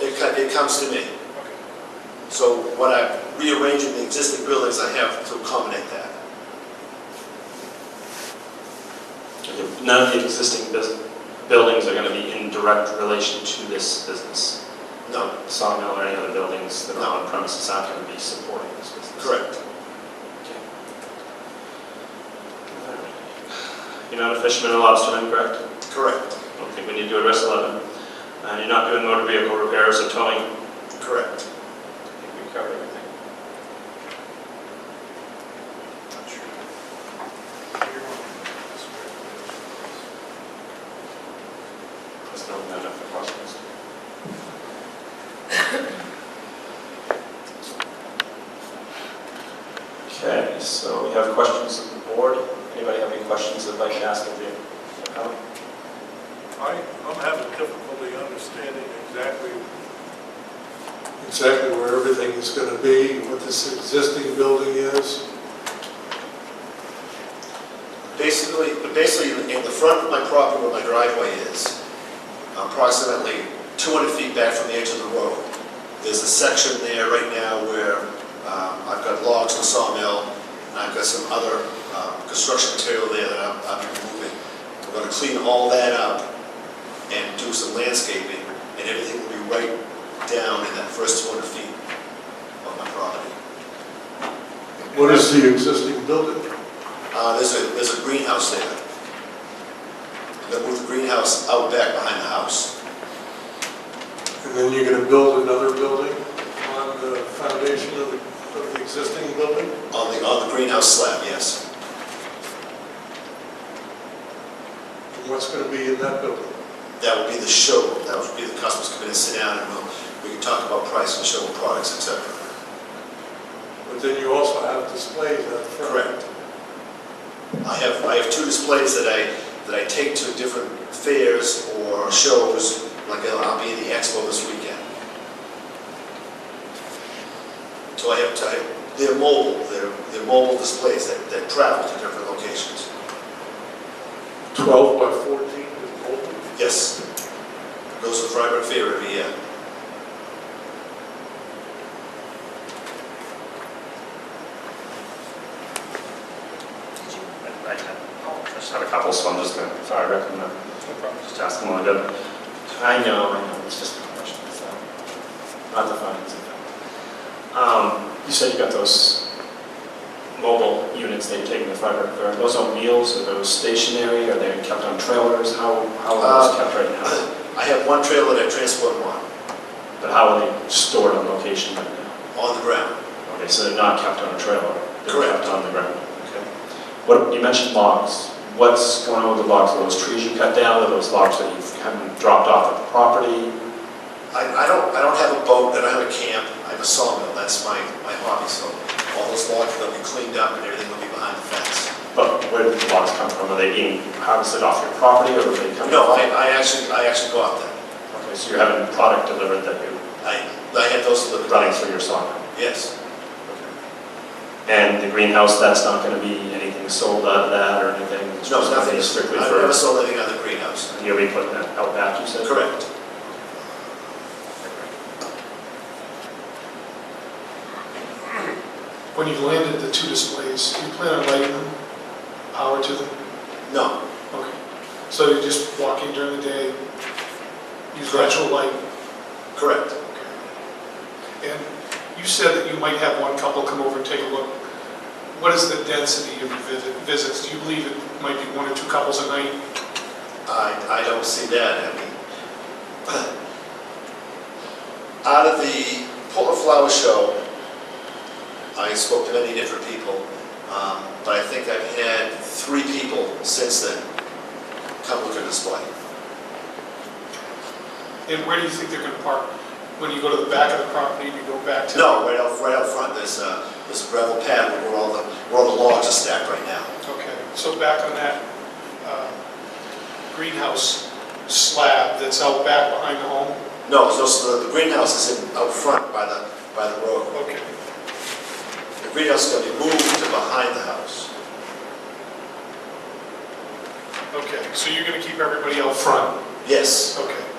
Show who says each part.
Speaker 1: it comes to me. So what I'm rearranging the existing buildings I have to accommodate that.
Speaker 2: None of the existing bus- buildings are going to be in direct relation to this business.
Speaker 1: No,
Speaker 2: Sawmill or any other buildings that are on premises aren't going to be supporting this business.
Speaker 1: correct.
Speaker 2: You're not a fisherman or lobsterman, correct?
Speaker 1: Correct.
Speaker 2: I don't think we need to address 11. And you're not doing motor vehicle repairs or towing.
Speaker 1: Correct.
Speaker 2: I think we covered everything. Let's not add up the questions. Okay, so we have questions of the board. Anybody have any questions that I can ask of you?
Speaker 3: I, I'm having difficulty understanding exactly. Exactly where everything is going to be, what this existing building is.
Speaker 1: Basically, but basically, in the front of my property where my driveway is, approximately 200 feet back from the edge of the road, there's a section there right now where um, I've got logs and sawmill, and I've got some other um, construction material there that I'm- I'm removing. I'm going to clean all that up and do some landscaping, and everything will be right down in that first 200 feet of my property.
Speaker 3: What is the existing building?
Speaker 1: Uh, there's a, there's a greenhouse there. They moved the greenhouse out back behind the house.
Speaker 3: And then you're going to build another building on the foundation of the, of the existing building?
Speaker 1: On the, on the greenhouse slab, yes.
Speaker 3: And What's going to be in that building?
Speaker 1: That would be the show, that would be the customers come in and sit down and we'll, we can talk about price and show what products, et cetera.
Speaker 3: But then you also have displays out front.
Speaker 1: Correct. I have, I have two displays that I, that I take to different fairs or shows, like uh, I'll be in the expo this weekend. So I have, I have- they're mobile, they're, they're mobile displays that, that travel to different locations.
Speaker 3: 12 by 14 is open.
Speaker 1: Yes, goes to Freiburg Fair every year.
Speaker 2: I I just have a couple, so I'm just going to, sorry, Rick, I'm going to uh, just ask them all together. I know, I know, it's just a question, so, not the findings of fact. Um, You said you got those mobile units that you're taking the fiber, are those on wheels, are those stationary, are they kept on trailers? How, how are those kept right now?
Speaker 1: I have one trailer that I transport one,
Speaker 2: But how are they stored on location right now?
Speaker 1: on the ground.
Speaker 2: Okay, so they're not kept on a trailer? They're
Speaker 1: Correct.
Speaker 2: kept on the ground? Okay. What, you mentioned logs. What's going on with the logs? Are those trees you cut down, are those logs that you've kind of dropped off at the property?
Speaker 1: I, I don't, I don't have a boat, I don't have a camp, I have a sawmill, that's my, my hobby, so all those logs will be cleaned up and everything will be behind the fence.
Speaker 2: But where did the logs come from? Are they being harvested off your property or are they coming?
Speaker 1: No, I, I actually, I actually bought them.
Speaker 2: Okay, so you're having product delivered that you're
Speaker 1: I, I had those delivered.
Speaker 2: running through your sawmill?
Speaker 1: Yes,
Speaker 2: And the greenhouse, that's not going to be anything sold out of that or anything? It's
Speaker 1: no,
Speaker 2: just gonna
Speaker 1: nothing,
Speaker 2: be Strictly
Speaker 1: I've never
Speaker 2: for,
Speaker 1: sold anything out of the greenhouse.
Speaker 2: you'll be putting that out back, you said?
Speaker 1: Correct.
Speaker 4: When you've landed the two displays, do you plan on lighting them, power to them?
Speaker 1: No,
Speaker 4: Okay. So you just walk in during the day, use natural light?
Speaker 1: correct.
Speaker 4: Okay. And you said that you might have one couple come over and take a look. What is the density of your visit- visits? Do you believe it might be one or two couples a night?
Speaker 1: I, I don't see that, I mean. Out of the Portland Flower Show, I spoke to many different people, um, but I think I've had three people since then come look at the display.
Speaker 4: And where do you think they're going to park? When you go to the back of the property and you go back to?
Speaker 1: No, right out, right out front, there's a, there's a gravel pad where all the, where all the logs are stacked right now.
Speaker 4: Okay, so back on that uh, greenhouse slab that's out back behind the home?
Speaker 1: No, it's also, the greenhouse is in, out front by the, by the road.
Speaker 4: Okay.
Speaker 1: The greenhouse is gonna be moved to behind the house.
Speaker 4: Okay, so you're going to keep everybody out front?
Speaker 1: Yes,
Speaker 4: Okay.